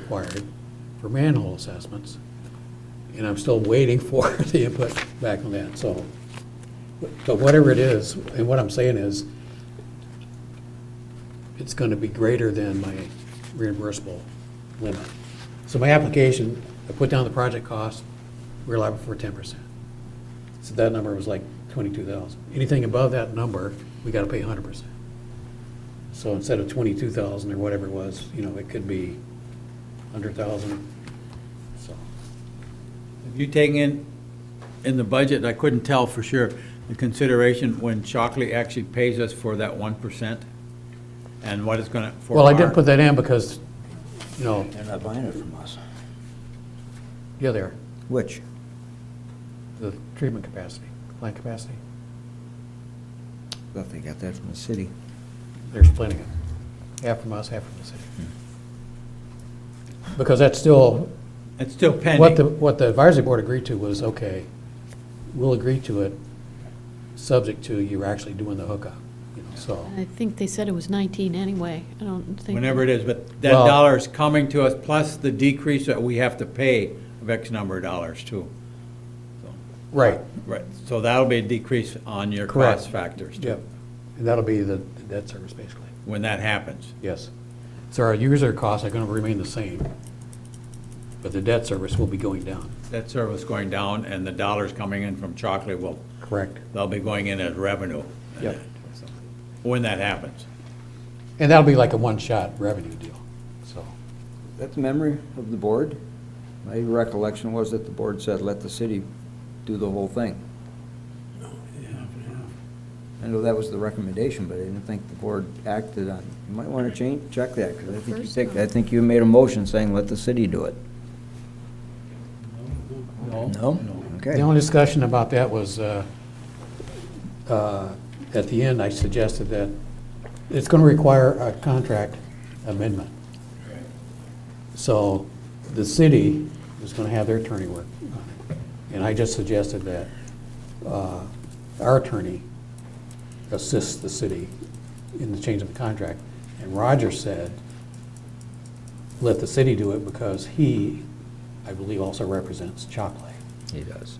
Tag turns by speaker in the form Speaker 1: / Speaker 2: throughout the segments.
Speaker 1: required for manhole assessments. And I'm still waiting for the input back on that, so. But whatever it is, and what I'm saying is, it's gonna be greater than my reimbursable limit. So my application, I put down the project cost, we're liable for ten percent. So that number was like twenty-two thousand. Anything above that number, we gotta pay hundred percent. So instead of twenty-two thousand or whatever it was, you know, it could be hundred thousand, so.
Speaker 2: Have you taken in, in the budget, I couldn't tell for sure, the consideration when Shockley actually pays us for that one percent? And what it's gonna, for
Speaker 1: Well, I didn't
Speaker 2: our-
Speaker 1: put that in because, you know,
Speaker 3: They're not buying it from us.
Speaker 1: yeah, there,
Speaker 3: Which?
Speaker 1: the treatment capacity, plant capacity,
Speaker 3: Thought they got that from the city.
Speaker 1: they're splitting it, half from us, half from the city. Because that's still,
Speaker 2: It's still
Speaker 1: What the,
Speaker 2: pending.
Speaker 1: what the advisory board agreed to was, okay, we'll agree to it, subject to you actually doing the hookup, you know, so.
Speaker 4: I think they said it was 19 anyway. I don't think.
Speaker 2: Whenever it is, but that
Speaker 1: Well-
Speaker 2: dollar is coming to us, plus the decrease that we have to pay of X number of dollars too. So,
Speaker 1: Right,
Speaker 2: Right, so that'll be a decrease on your
Speaker 1: Correct.
Speaker 2: cost factors too,
Speaker 1: yep. And that'll be the the debt service, basically,
Speaker 2: when that happens.
Speaker 1: yes. So our user costs are gonna remain the same, but the debt service will be going down.
Speaker 2: That service going down and the dollars coming in from Shockley will,
Speaker 1: Correct.
Speaker 2: they'll be going in as revenue.
Speaker 1: Yep.
Speaker 2: When that happens.
Speaker 1: And that'll be like a one-shot revenue deal, so.
Speaker 3: That's the memory of the board. My recollection was that the board said, let the city do the whole thing. I know that was the recommendation, but I didn't think the board acted on, you might want to change, check that, because I think you
Speaker 4: First
Speaker 3: take, I
Speaker 4: time.
Speaker 3: think you made a motion saying, let the city do it. No?
Speaker 1: The
Speaker 3: Okay.
Speaker 1: only discussion about that was, uh, uh, at the end, I suggested that it's going to require a contract amendment. So the city is going to have their attorney work on it. And I just suggested that uh, our attorney assists the city in the change of the contract. And Roger said, let the city do it because he, I believe, also represents Chocolate.
Speaker 3: He does.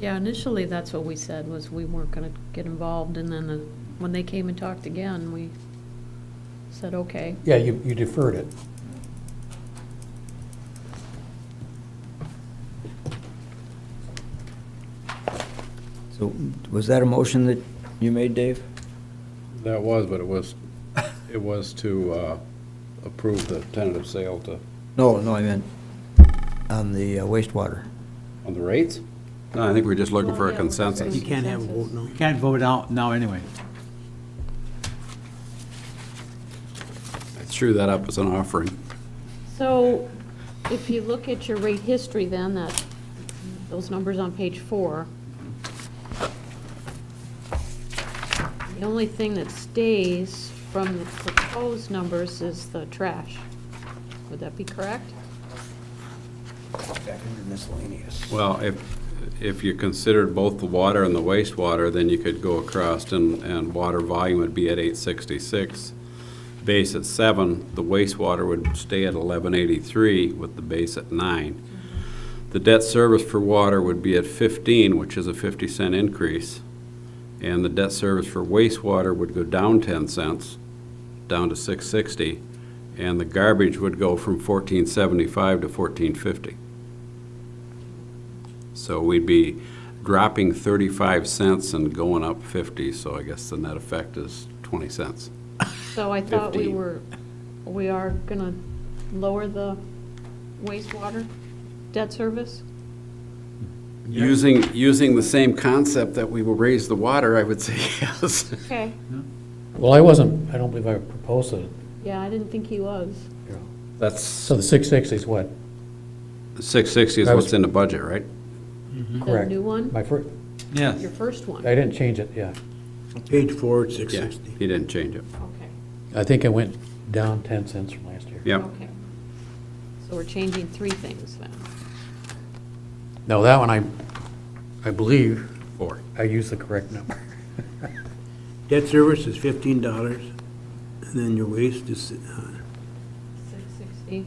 Speaker 4: Yeah, initially, that's what we said, was we weren't going to get involved, and then the- when they came and talked again, we said, okay.
Speaker 1: Yeah, you, you deferred it.
Speaker 3: So was that a motion that you made, Dave?
Speaker 5: That was, but it was, it was to uh, approve the tentative sale to,
Speaker 3: No, no, I meant on the uh, wastewater.
Speaker 5: on the rates? No, I think we're just looking for
Speaker 4: Well,
Speaker 5: a
Speaker 4: yeah, we're just
Speaker 5: consensus.
Speaker 4: You can't have a vote
Speaker 6: now.
Speaker 2: You Can't vote out now anyway.
Speaker 5: I threw that up as an offering.
Speaker 4: So if you look at your rate history then, that, those numbers on page four, the only thing that stays from the proposed numbers is the trash. Would that be correct?
Speaker 3: Back under miscellaneous.
Speaker 5: Well, if, if you considered both the water and the wastewater, then you could go across and, and water volume would be at eight sixty-six, base at seven, the wastewater would stay at eleven eighty-three with the base at nine. The debt service for water would be at fifteen, which is a fifty cent increase. And the debt service for wastewater would go down ten cents, down to six sixty. And the garbage would go from fourteen seventy-five to fourteen fifty. So we'd be dropping 35 cents and going up 50, so I guess the net effect is 20 cents.
Speaker 4: So I thought we
Speaker 5: Fifteen.
Speaker 4: were, we are gonna lower the wastewater debt service?
Speaker 5: Using, using the same concept that we will raise the water, I would say yes.
Speaker 4: Okay,
Speaker 1: Well, I wasn't, I don't believe I proposed it.
Speaker 4: yeah, I didn't think he was.
Speaker 5: That's,
Speaker 1: So the 660 is what?
Speaker 5: 660 is
Speaker 1: That was-
Speaker 5: what's in the budget, right?
Speaker 1: Correct.
Speaker 4: The new one,
Speaker 1: My first,
Speaker 2: Yes.
Speaker 4: your first one,
Speaker 1: I didn't change it, yeah.
Speaker 6: Page four, it's
Speaker 5: Yeah,
Speaker 6: 660.
Speaker 5: he didn't change it.
Speaker 4: okay,
Speaker 1: I think it went down 10 cents from last year.
Speaker 5: Yep.
Speaker 4: okay. So we're changing three things then.
Speaker 1: No, that one I, I believe
Speaker 5: Four.
Speaker 1: I used the correct number.
Speaker 6: Debt service is fifteen dollars, and then your waste is, uh,
Speaker 4: Six sixty. See?